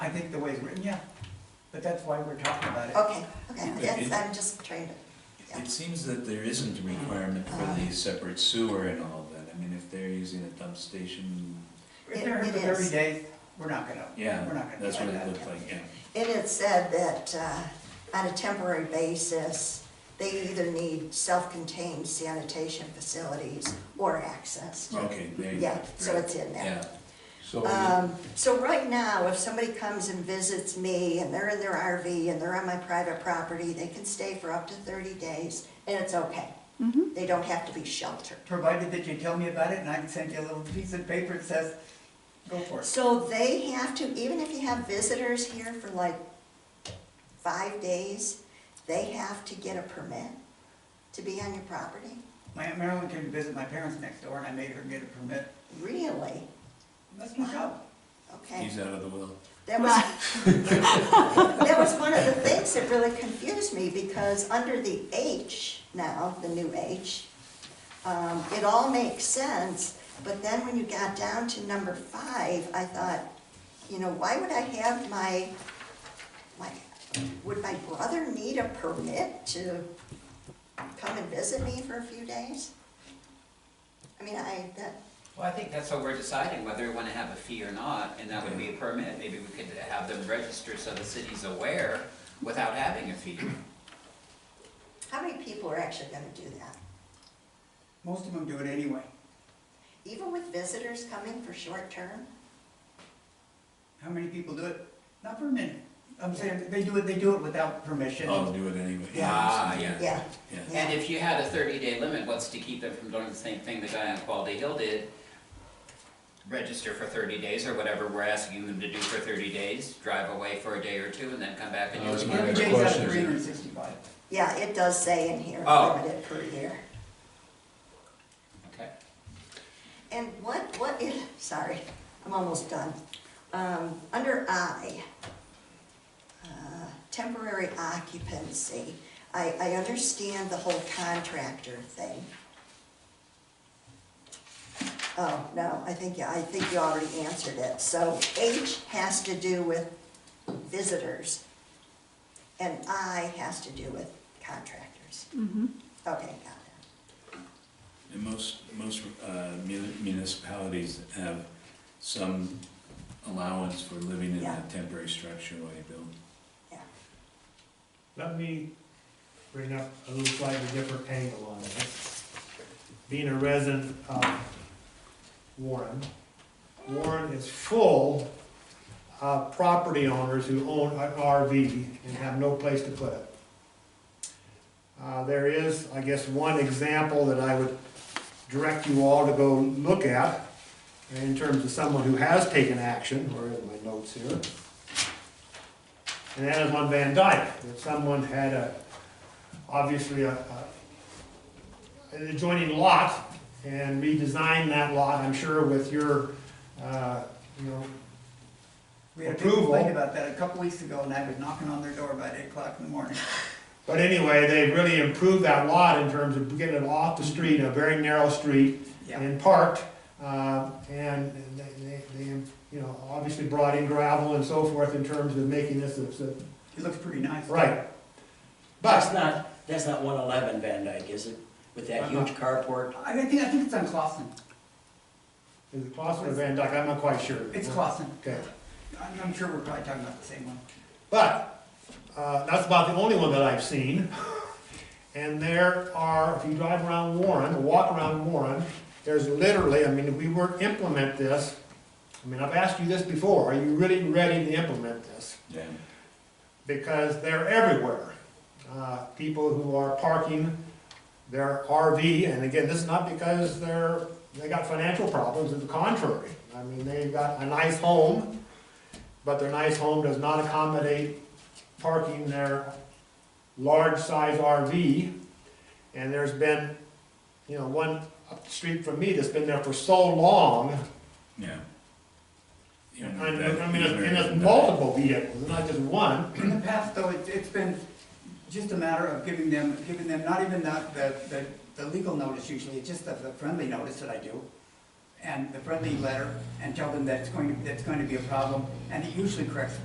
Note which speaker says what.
Speaker 1: think the way it's written, yeah, but that's why we're talking about it.
Speaker 2: Okay, okay, yes,
Speaker 3: it-
Speaker 2: I'm just trying to, yeah.
Speaker 3: It seems that there isn't a requirement for
Speaker 2: Uh-huh.
Speaker 3: the separate sewer and all of that. I mean, if they're using a dump station,
Speaker 1: If they're here
Speaker 2: It-
Speaker 1: for
Speaker 2: it
Speaker 1: thirty
Speaker 2: is.
Speaker 1: days, we're not gonna,
Speaker 3: yeah,
Speaker 1: we're not gonna
Speaker 3: that's what
Speaker 1: decide
Speaker 3: it
Speaker 1: that.
Speaker 3: looked like, yeah.
Speaker 2: It had said that uh, on a temporary basis, they either need self-contained sanitation facilities or access. to-
Speaker 3: Okay, there you go.
Speaker 2: Yeah, so it's in there.
Speaker 3: Yeah,
Speaker 4: So,
Speaker 2: Um, So right now, if somebody comes and visits me and they're in their RV and they're on my private property, they can stay for up to 30 days and it's okay. They don't have to be sheltered.
Speaker 1: Provided that you tell me about it and I can send you a little piece of paper that says, go for it.
Speaker 2: So they have to, even if you have visitors here for like five days, they have to get a permit to be on your property?
Speaker 1: My Aunt Marilyn came to visit my parents next door and I made her get a permit.
Speaker 2: Really?
Speaker 1: That's my job.
Speaker 2: Okay.
Speaker 3: he's out of the will.
Speaker 2: That was, that was one of the things that really confused me because under the H now, the new H, um, it all makes sense, but then when you got down to number five, I thought, you know, why would I have my, my, would my brother need a permit to come and visit me for a few days? I mean, I, that,
Speaker 5: Well, I think that's what we're deciding, whether we want to have a fee or not, and that would be a permit. Maybe we could have them register so the city's aware without having a fee.
Speaker 2: how many people are actually gonna do that?
Speaker 1: Most of them do it anyway.
Speaker 2: Even with visitors coming for short term?
Speaker 1: How many people do it? Not for a minute. I'm saying, they do it, they do it without permission.
Speaker 3: I'll do it anyway.
Speaker 5: Ah,
Speaker 3: Yeah.
Speaker 5: yeah.
Speaker 2: Yeah,
Speaker 3: Yeah.
Speaker 5: And if you had a thirty-day limit, what's to keep them from doing the same thing the guy on Quality Hill did? Register for thirty days or whatever we're asking them to do for thirty days, drive away for a day or two, and then come back and
Speaker 4: That was
Speaker 5: use
Speaker 4: my
Speaker 5: it.
Speaker 1: Every
Speaker 4: next
Speaker 1: day's out
Speaker 4: question.
Speaker 1: of three hundred and sixty-five.
Speaker 2: yeah, it does say in here,
Speaker 5: Oh.
Speaker 2: limited per year.
Speaker 5: Okay.
Speaker 2: And what, what is, sorry, I'm almost done. Um, under I, uh, temporary occupancy, I, I understand the whole contractor thing. Oh, no, I think, I think you already answered it. So H has to do with visitors, and I has to do with contractors. Okay, got it.
Speaker 3: And most, most uh, mun- municipalities have some allowance for living in
Speaker 2: Yeah.
Speaker 3: a temporary structure while you build.
Speaker 6: Let me bring up a little slightly different angle on it. Being a resident of Warren, Warren is full of property owners who own an RV and have no place to put it. Uh, there is, I guess, one example that I would direct you all to go look at in terms of someone who has taken action, where is my notes here? And that is on Van Dyke, that someone had a, obviously a, a- an adjoining lot and redesigned that lot, I'm sure with your, uh, you know,
Speaker 1: We had a big
Speaker 6: Approval.
Speaker 1: complaint about that a couple weeks ago and I was knocking on their door about eight o'clock in the morning.
Speaker 6: But anyway, they really improved that lot in terms of getting it off the street, a very narrow street,
Speaker 1: Yeah.
Speaker 6: and parked. uh, And they, they, they, you know, obviously brought in gravel and so forth in terms of making this, a- a-
Speaker 1: It looks pretty nice.
Speaker 6: right.
Speaker 7: That's
Speaker 6: But,
Speaker 7: not, that's not one eleven Van Dyke, is it? With that
Speaker 6: I'm not-
Speaker 7: huge carport?
Speaker 1: I think, I think it's on Clausen.
Speaker 6: is it Clausen or Van Dyke? I'm not quite sure.
Speaker 1: It's Clausen.
Speaker 6: Okay.
Speaker 1: I'm, I'm sure we're probably talking about the same one.
Speaker 6: But uh, that's about the only one that I've seen. And there are, if you drive around Warren, or walk around Warren, there's literally, I mean, if we were to implement this, I mean, I've asked you this before, are you really ready to implement this?
Speaker 3: Yeah.
Speaker 6: Because they're everywhere. Uh, People who are parking their RV, and again, this is not because they're, they got financial problems, to the contrary. I mean, they've got a nice home, but their nice home does not accommodate parking their large-size RV. And there's been, you know, one up the street from me that's been there for so long.
Speaker 3: Yeah.
Speaker 6: I
Speaker 3: You
Speaker 6: mean,
Speaker 3: know, that-
Speaker 6: I mean, it's- and
Speaker 3: that-
Speaker 6: it's multiple vehicles, not just one.
Speaker 1: In the past, though, it's, it's been just a matter of giving them, giving them, not even the, the, the the legal notice usually, it's just the, the friendly notice that I do. And the friendly letter, and tell them that it's going, that's going to be a problem, and it usually corrects